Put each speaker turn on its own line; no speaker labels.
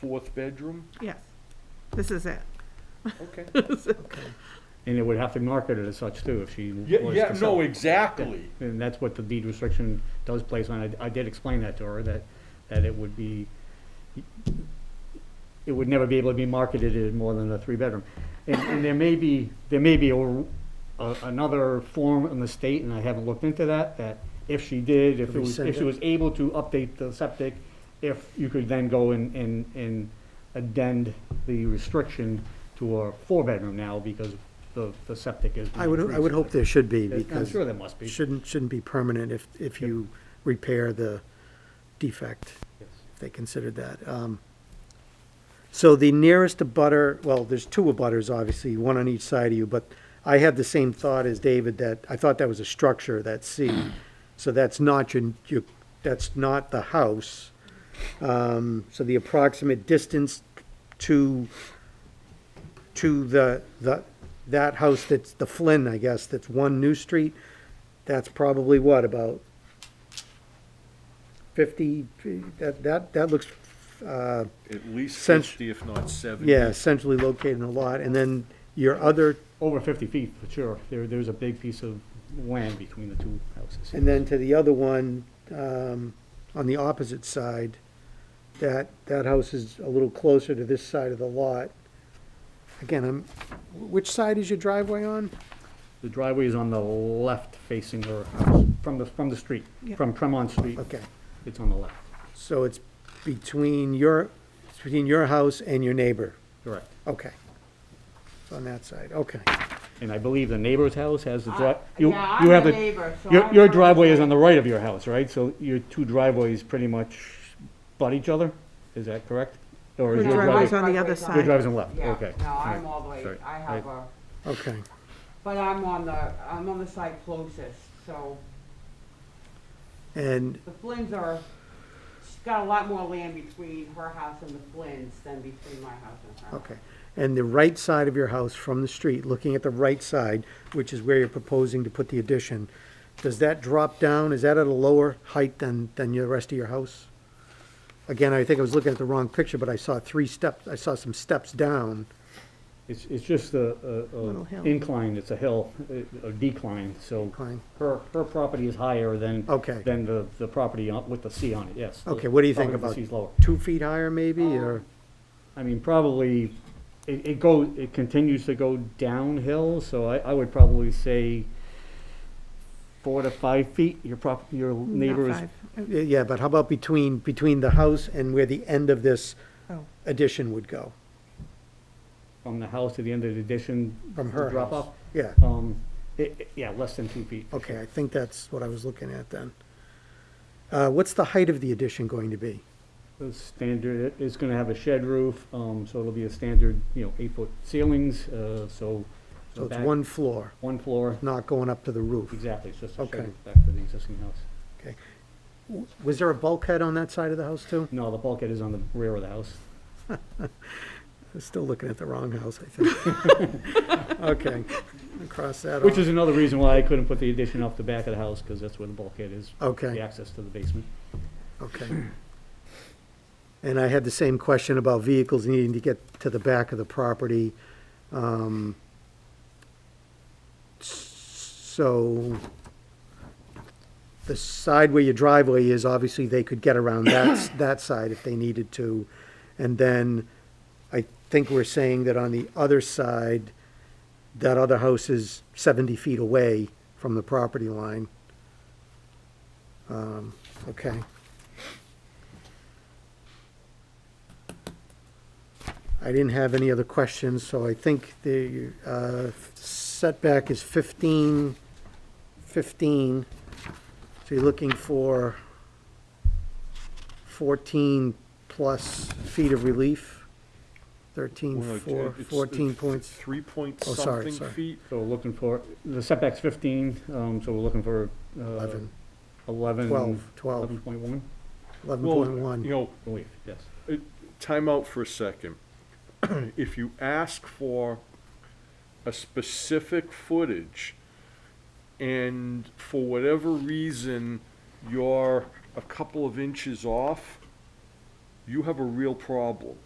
fourth bedroom?
Yes, this is it.
Okay.
And it would have to mark it as such too, if she
Yeah,
was
yeah,
to sell.
no, exactly.
And that's what the deed restriction does place on, it. I did explain that to her, that, that it would be, it would never be able to be marketed as more than a three-bedroom. And, and there may be, there may be a, a- another form in the state, and I haven't looked into that, that if she did, if it was, if she was able to update the septic, if you could then go and, and, and addend the restriction to a four-bedroom now, because the, the septic is.
I would, I would hope there should be,
I'm
because
sure there must be.
it shouldn't, shouldn't be permanent if, if you repair the defect, if they considered that. Um, So the nearest abutter, well, there's two abutters, obviously, one on each side of you, but I had the same thought as David, that, I thought that was a structure, that C. So that's not your, your, that's not the house. Um, So the approximate distance to, to the, the, that house that's the Flynn, I guess, that's one New Street, that's probably what, about fifty, that, that, that looks, uh,
At least
Since-
fifty, if not seventy.
yeah, centrally located in a lot, and then your other,
Over fifty feet, for sure. There, there's a big piece of land between the two houses.
and then to the other one, um, on the opposite side, that, that house is a little closer to this side of the lot. Again, I'm, which side is your driveway on?
The driveway is on the left facing her house, from the, from the street,
Yeah.
from Tremont Street.
Okay,
It's on the left,
so it's between your, it's between your house and your neighbor,
correct.
okay. It's on that side, okay.
And I believe the neighbor's house has the drive.
Uh, Yeah, I'm the neighbor, so
Your,
I
your
know-
driveway is on the right of your house, right? So your two driveways pretty much butt each other? Is that correct? Or
Her
is
Yeah,
your
my
driveway's
driveway,
on the other
driveway's
your
side.
driveway's on the left?
Yeah,
Okay.
No,
All
I'm
right.
all the way,
Sorry.
I
I-
have a,
Okay,
but I'm on the, I'm on the side closest, so
and
the Flynns are, she's got a lot more land between her house and the Flynns than between my house and her.
Okay, and the right side of your house from the street, looking at the right side, which is where you're proposing to put the addition, does that drop down, is that at a lower height than, than the rest of your house? Again, I think I was looking at the wrong picture, but I saw three steps, I saw some steps down.
It's, it's just a, a-
Little
a
hill.
incline, it's a hill, a a decline, so
Decline.
her, her property is higher than,
Okay.
than the, the property on- with the C on it, yes.
Okay, what do you think
Property with the
about-
C's lower.
Two feet higher maybe, or,
I mean, probably, it, it go, it continues to go downhill, so I, I would probably say four to five feet, your prop, your
Not
neighbor is
five.
yeah, but how about between, between the house and where the end of this
Oh.
addition would go?
from the house to the end of the addition.
From her
Drop
house.
off,
Yeah,
um, it, it- yeah, less than two feet.
okay, I think that's what I was looking at then. Uh, what's the height of the addition going to be?
The standard, it's gonna have a shed roof, um, so it'll be a standard, you know, eight-foot ceilings, uh, so. the
So it's
back-
one floor,
One floor,
not going up to the roof.
exactly, it's just a
Okay.
shed roof back to the existing house.
Okay. W- Was there a bulkhead on that side of the house too?
No, the bulkhead is on the rear of the house.
I was still looking at the wrong house, I think. Okay, I'll cross that off.
Which is another reason why I couldn't put the addition off the back of the house, because that's where the bulkhead is, the
Okay,
access to the basement.
okay. And I had the same question about vehicles needing to get to the back of the property. Um, s- So the side where your driveway is, obviously, they could get around that, that side if they needed to. And then I think we're saying that on the other side, that other house is 70 feet away from the property line. Um, Okay. I didn't have any other questions, so I think the uh, setback is 15, 15. So you're looking for 14-plus feet of relief, 13,
Well, it-
four-
it's- it's
14 points.
Three point
Oh, sorry,
something
sorry.
feet.
So we're looking for, the setback's fifteen, um, so we're looking for, uh,
11,
eleven.
12, 12.
Eleven point one,
Well,
11.1.
you know,
believe, yes.
time out for a second. If you ask for a specific footage and for whatever reason you're a couple of inches off, you have a real problem.